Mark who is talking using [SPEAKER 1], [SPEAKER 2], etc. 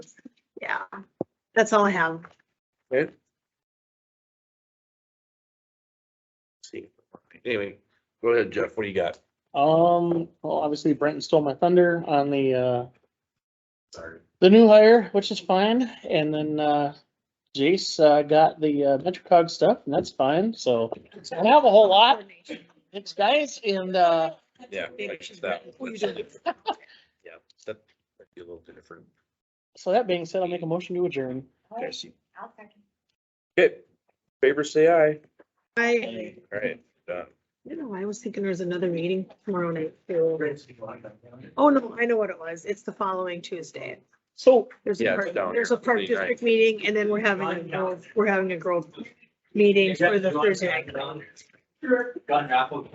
[SPEAKER 1] That's all I have.
[SPEAKER 2] Okay. See, anyway, go ahead, Jeff, what do you got?
[SPEAKER 3] Um, well, obviously Brenton stole my thunder on the, uh,
[SPEAKER 2] Sorry.
[SPEAKER 3] the new hire, which is fine. And then, uh, Jace, uh, got the, uh, MetroCog stuff and that's fine. So I don't have a whole lot. Thanks guys. And, uh,
[SPEAKER 2] Yeah.
[SPEAKER 1] Maybe
[SPEAKER 2] like
[SPEAKER 1] she's
[SPEAKER 2] that.
[SPEAKER 1] right. What you doing?
[SPEAKER 2] Yeah, that might be a little bit different.
[SPEAKER 3] so that being said, I'll make a motion to adjourn.
[SPEAKER 2] Okay, favor say aye.
[SPEAKER 1] I,
[SPEAKER 2] All right, done.
[SPEAKER 1] you know, I was thinking there's another meeting tomorrow night. too. Oh, no, I know what it was. It's the following Tuesday.
[SPEAKER 3] So
[SPEAKER 1] There's a
[SPEAKER 2] Yeah, it's
[SPEAKER 1] park,
[SPEAKER 2] down
[SPEAKER 1] there's a
[SPEAKER 2] here,
[SPEAKER 1] park
[SPEAKER 2] 49.
[SPEAKER 1] district meeting and then we're having a grove, we're having a grove meeting for the Thursday night.
[SPEAKER 4] Gun raffle